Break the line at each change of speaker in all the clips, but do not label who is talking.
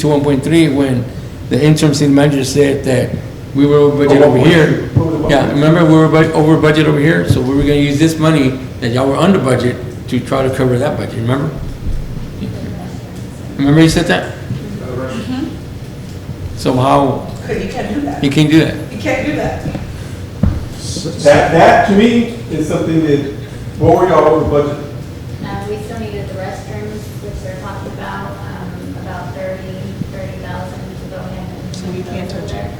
to one point three when the interim city manager said that we were over budget over here. Yeah, remember, we were bud- over budget over here, so we were gonna use this money that y'all were under budget to try to cover that budget, remember? Remember you said that? So how,
But you can't do that.
you can't do that?
You can't do that.
That, that to me is something that, what were y'all over budget?
Uh, we still needed the restrooms, which they're talking about, um, about thirty, thirty thousand to go in. and
So we can't touch it.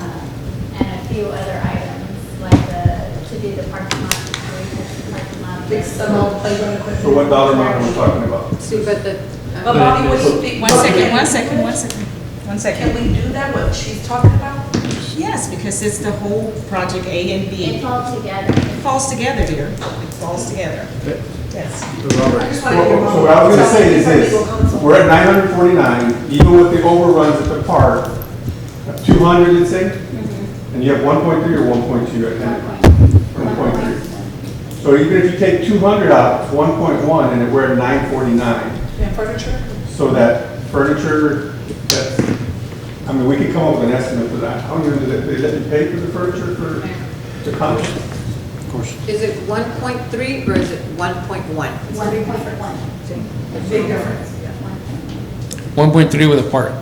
Um, And a few other items, like the, to do the parking lot, we touched the parking lot.
Fix some old playground equipment.
So what dollar amount are we talking about?
See, but the, uh,
But Bobby, what do you think?
One second, one second, one second,
Can
one second.
we do that, what she's talking about?
Yes, because it's the whole project A and
It's
B.
all together.
It falls together, dear. It falls together. Yes.
I just
So
want to hear.
so what I was gonna say is
Legal
this,
counsel.
we're at nine hundred forty-nine, even with the overruns at the park, two hundred, let's say?
Mm-hmm.
And you have one point three or one point two, I think? One point three. So even if you take two hundred out, it's one point one, and we're at nine forty-nine.
And furniture?
So that furniture, that's, I mean, we could come up with an estimate for that. How many, did they let you pay for the furniture for, to come?
is it 1.3 or is it 1.1?
One point one.
Big difference, yeah.
One point three with a part?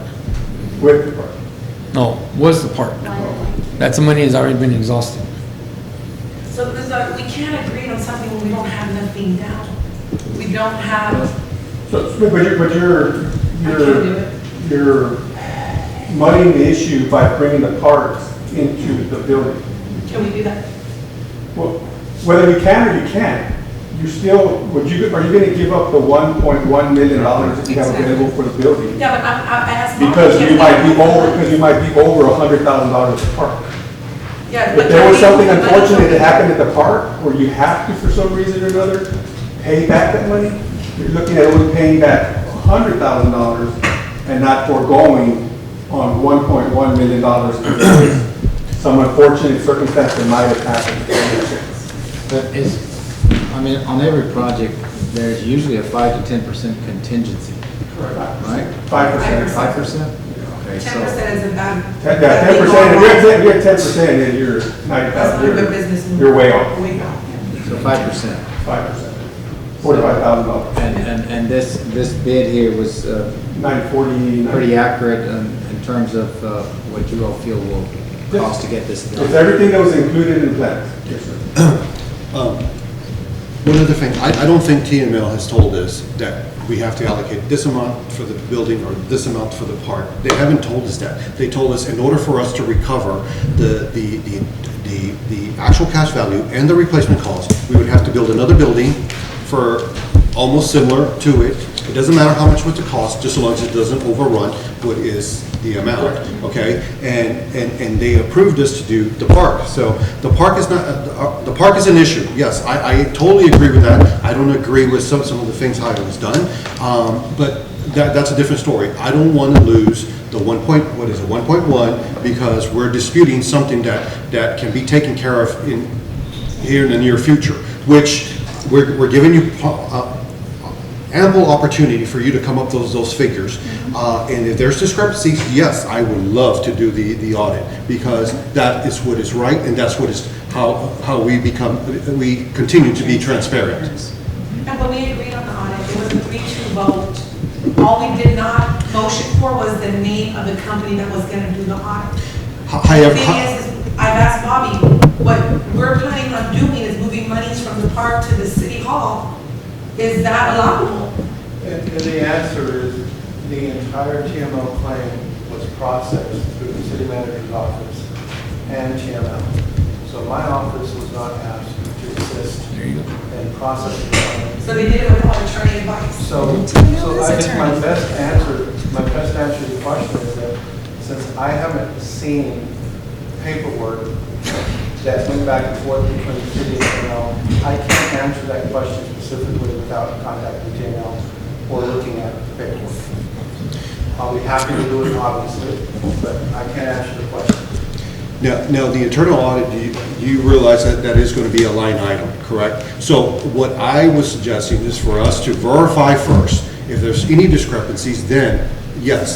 With the park?
No, was the part? That's the money has already been exhausted.
So there's a, we can't agree on something when we don't have nothing down. We don't have,
So, but you're, but you're,
do
you're, you're muddying the issue by bringing the parks into the building.
can we do that?
Well, whether you can or you can't, you still, would you, are you gonna give up the one point one million dollars that you have available for the building?
Yeah, but I, I asked. Bobby,
Because
can
you
we-
might be over, because you might be over a hundred thousand dollars a park.
Yeah.
If there was something
but-
unfortunate that happened at the park, or you have to for some reason or another, pay back that money, you're looking at only paying back hundred thousand dollars and not foregoing on one point one million dollars. Some unfortunate circumstance that might have happened.
But is, I mean, on every project, there's usually a five to ten percent contingency, right?
Five percent.
Five percent? Okay,
Ten
so,
percent isn't bad.
Ten percent, if you're at ten, if you're at ten percent, then you're ninety
That's not a good
thousand,
business.
you're,
move.
you're way off,
We know.
so five percent.
five percent. Forty-five thousand dollars,
And, and, and this, this bid here was uh,
nine forty,
pretty
nine.
accurate in, in terms of uh, what you all feel will cost to get this
It's
done.
everything that was included in the plans. Yes, sir.
Um, One other thing, I, I don't think TML has told us that we have to allocate this amount for the building or this amount for the park. They haven't told us that. They told us in order for us to recover the, the, the, the the actual cash value and the replacement cost, we would have to build another building for almost similar to it. It doesn't matter how much would it cost, just so long as it doesn't overrun what is the amount, okay? And, and, and they approved us to do the park. So the park is not, uh, the park is an issue, yes, I, I totally agree with that. I don't agree with some, some of the things how it was done, um, but that, that's a different story. I don't want to lose the one point, what is it, one point one, because we're disputing something that, that can be taken care of in, here in the near future, which we're, we're giving you po- uh, ample opportunity for you to come up those, those figures. Uh, And if there's discrepancies, yes, I would love to do the, the audit, because that is what is right, and that's what is, how, how we become, we continue to be transparent.
And when we agreed on the audit, it was a three-two vote. All we did not motion for was the name of the company that was gonna do the audit.
Ho-
The
However,
thing
ho-
is, is I've asked Bobby, what we're planning on doing is moving monies from the park to the city hall. Is that allowable?
And and the answer is, the entire TML claim was processed through the city manager's office and TML. So my office was not asked to assist in processing. the claim.
So they did it without attorney advice.
So, so I think my best answer, my best answer to the question is that since I haven't seen paperwork that went back and forth between the city and TNL, I can't answer that question specifically without contacting TNL or looking at the paperwork. I'll be happy to do it, obviously, but I can't answer the question.
Now, now, the internal audit, you- you realize that that is going to be a line item, correct? So what I was suggesting is for us to verify first. If there's any discrepancies, then, yes,